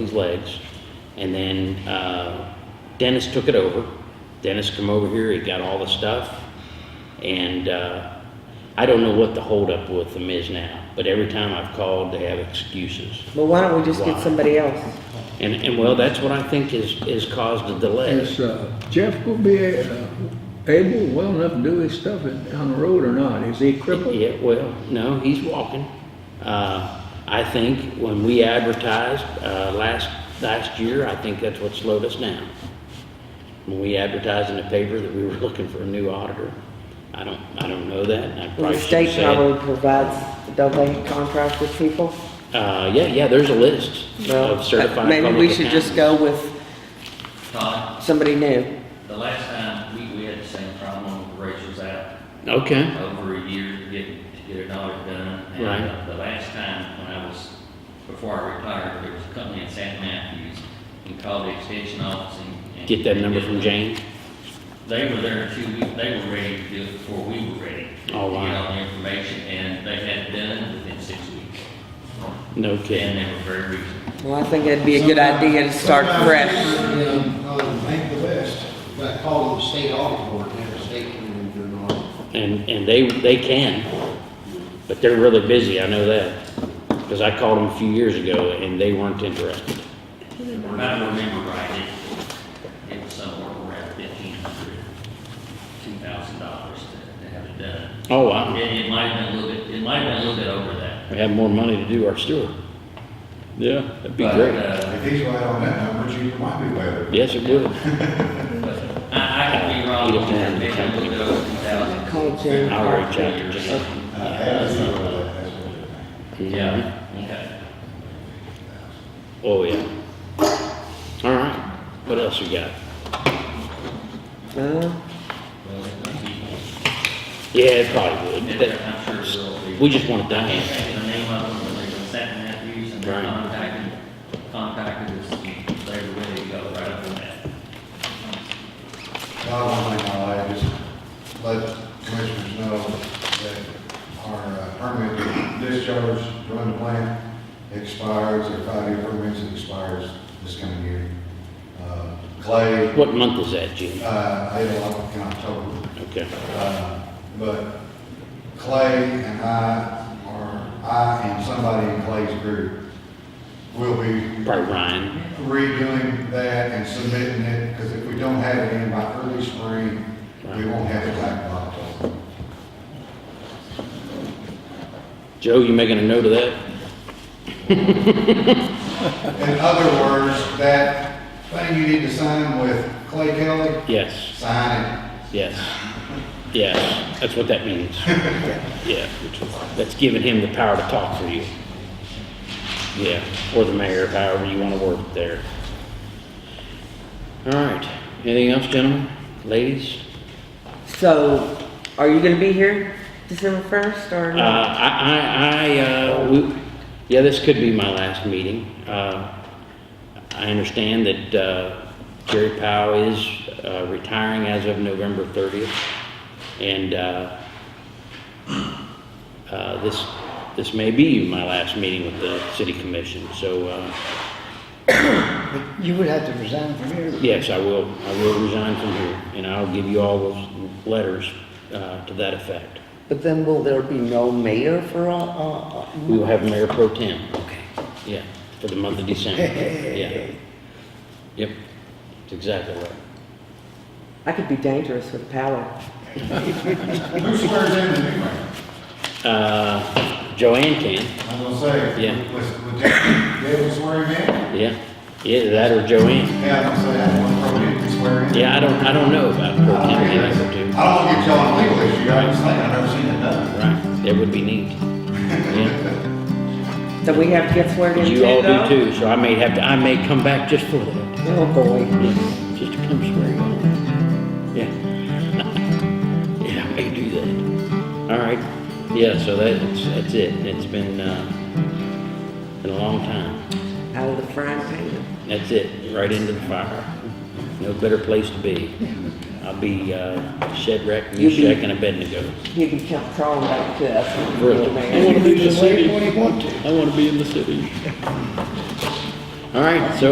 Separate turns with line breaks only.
his legs. And then uh, Dennis took it over. Dennis come over here, he got all the stuff. And uh, I don't know what the holdup with them is now, but every time I've called, they have excuses.
But why don't we just get
Why?
somebody else?
And, and well, that's what I think is, is caused a delay.
Is uh, Jeff gonna be uh, able, well enough to do his stuff in- on the road or not? Is he crippled?
Yeah, well, no, he's walking. Uh, I think when we advertised, uh, last, last year, I think that's what slowed us down. When we advertised in the paper that we were looking for a new auditor, I don't, I don't know that, and I
The
probably should
state
say it.
probably provides, don't they contract with people?
Uh, yeah, yeah, there's a list
Well,
of certified
Maybe we
public
should just
accountants.
go with
Todd,
somebody new.
the last time, we, we had the same problem, Rachel's out
Okay,
over a year to get, to get an audit done. And,
Right.
uh, The last time, when I was, before I retired, there was a company in St. Matthews, and called the extension office and. and-
get that number from Jane.
They were there two weeks, they were ready to do it before we were ready. to
Oh, wow.
Get all the information, and they had it done within six weeks,
No
and
kidding.
they were very reasonable.
Well, I think that'd be a good idea to start fresh.
On Bank of the West, got called the state audit board, and the state came in and did an audit.
And, and they, they can, but they're really busy, I know that. Because I called them a few years ago and they weren't interested.
If I remember right, it, it was somewhere around fifteen hundred, two thousand dollars to, to have it done.
Oh, wow.
It, it might have been a little bit, it might have been a little bit over that.
We have more money to do our sewer. Yeah, that'd be
But,
great.
uh,
If he's right on that number, you might be way over.
Yes, it would.
but I, I could be wrong,
You'd
it
have to have the
a little bit over two thousand.
Call Jim.
I'll reach out to Jim.
Uh, as he would, that's what you're saying.
Yeah, okay.
Oh, yeah. All right. What else you got?
Uh,
Well, it-
Yeah, it probably would.
it-
That-
I'm sure it will be.
We just want to die.
The name of them, they were set in that use and they
Right.
contacted, contacted us, and they were ready to go right after that.
Not only my life, just let commissioners know that our uh, permit discharge, run the plant expires, our five-year permits expires this coming year. Uh, Clay,
What month is that, Jim?
uh, I had a lot of October.
Okay.
Uh, But Clay and I, or I and somebody in Clay's group will be
Probably Ryan.
redoing that and submitting it, because if we don't have it in by early spring, we won't have it back by October.
Joe, you making a note of that?
In other words, that thing you need to sign with Clay Kelly,
Yes,
sign
yes, yes. That's what that means. Yeah, that's giving him the power to talk for you. Yeah, or the mayor, however you want to word it there. All right. Anything else, gentlemen, ladies?
So, are you gonna be here December first or
Uh,
not?
I, I, I, uh, we, yeah, this could be my last meeting. Uh, I understand that, uh, Jerry Powell is, uh, retiring as of November thirtieth. And, uh, uh, this, this may be my last meeting with the city commission, so, uh,
But you would have to resign from here.
yes, I will, I will resign from here. And I'll give you all those letters, uh, to that effect.
But then will there be no mayor for all, uh, uh,
We will have Mayor Pro Tem. Okay. Yeah, for the month of December, yeah. Yep, that's exactly right.
I could be dangerous with power.
it. Who swears in the new mayor?
Uh, Joanne can,
I'm gonna say.
Yeah.
Was, was David David swearing in?
yeah, yeah, that or Joanne.
Yeah, I'm gonna say, I want to prohibit him swearing in.
Yeah, I don't, I don't know about Pro Tem, maybe I could do.
I don't want to get y'all in legal issue, I was thinking, I've never seen it done.
Right, that would be neat. Yeah,
So we have to get sworn in too
you all do
though?
too, so I may have to, I may come back just for that,
Oh, boy.
Yeah, just to come swear you in. Yeah. Yeah, I may do that. All right, yeah, so that's, that's it. It's been, uh, been a long time.
Out of the frying pan.
That's it, right into the fire. No better place to be. I'll be uh, Shadrach,
You'll be-
Meshach, and Abednego.
You can come crawling back to us. when you get
Really?
the mayor.
You can do the same when you want to.
I want to be in the city. All right, so